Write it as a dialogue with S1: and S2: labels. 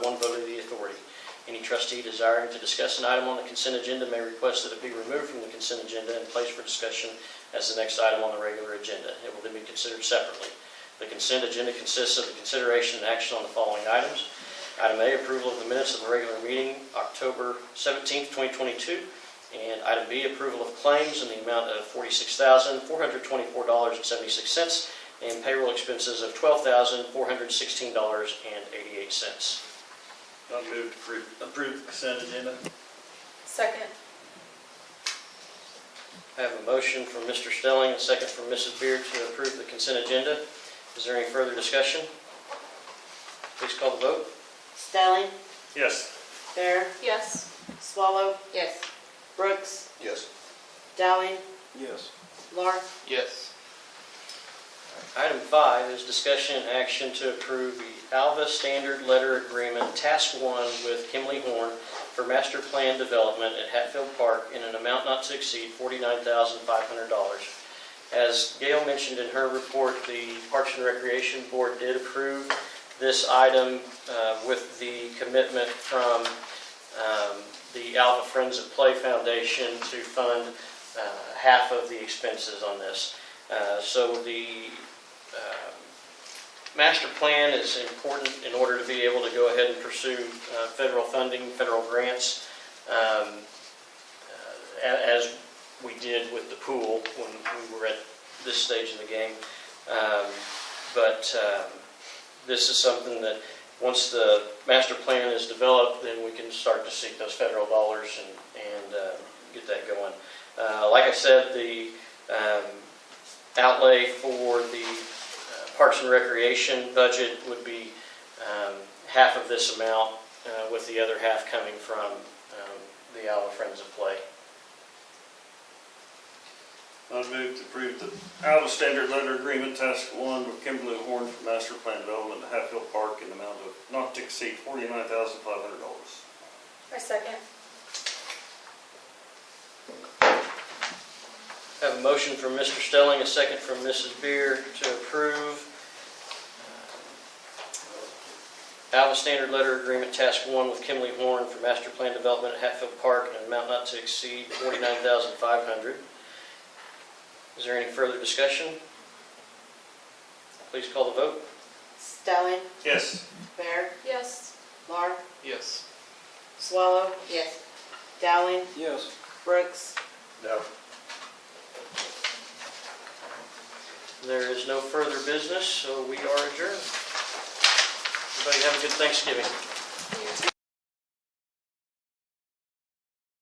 S1: Any trustee desiring to discuss an item on the consent agenda may request that it be removed from the consent agenda and placed for discussion as the next item on the regular agenda. It will then be considered separately. The consent agenda consists of the consideration and action on the following items. Item A, approval of the minutes of the regular meeting, October 17, 2022. And item B, approval of claims in the amount of $46,424.76 and payroll expenses of $12,416.88.
S2: I'll move to approve, approve the consent agenda.
S3: Second.
S1: I have a motion from Mr. Stelling, a second from Mrs. Beard to approve the consent agenda. Is there any further discussion? Please call the vote.
S4: Stelling,
S2: Yes.
S4: Bear,
S3: Yes.
S4: Swallow,
S3: Yes.
S4: Brooks,
S5: Yes.
S4: Dowling,
S5: Yes.
S4: Lark,
S5: Yes.
S1: Item five is discussion and action to approve the Alva Standard Letter Agreement Task One with Kimley Horn for master plan development at Hatfield Park in an amount not to exceed $49,500. As Gail mentioned in her report, the Parks and Recreation Board did approve this item uh, with the commitment from um, the Alva Friends of Play Foundation to fund uh, half of the expenses on this. Uh, So the um, master plan is important in order to be able to go ahead and pursue uh, federal funding, federal grants, um, uh, a- as we did with the pool when we were at this stage in the game. Um, But um, this is something that, once the master plan is developed, then we can start to seek those federal dollars and and uh, get that going. Uh, Like I said, the um, outlay for the uh, Parks and Recreation budget would be um, half of this amount, uh, with the other half coming from um, the Alva Friends of Play.
S2: I'll move to approve the Iowa Standard Letter Agreement Task One with Kimberly Horn for Master Plan Development at Hatfield Park in the amount of not to exceed forty-nine thousand five hundred dollars.
S3: I second.
S1: I Have a motion from Mr. Stelling, a second from Mrs. Beer to approve uh, Alva Standard Letter Agreement Task One with Kimley Horn for Master Plan Development at Hatfield Park in an amount not to exceed $49,500. Is there any further discussion? Please call the vote.
S4: Stelling,
S2: Yes.
S4: Bear,
S3: Yes.
S4: Lark,
S5: Yes.
S4: Swallow,
S3: Yes.
S4: Dowling,
S5: Yes.
S4: Brooks,
S2: No.
S1: There is no further business, so we are adjourned. Everybody have a good Thanksgiving.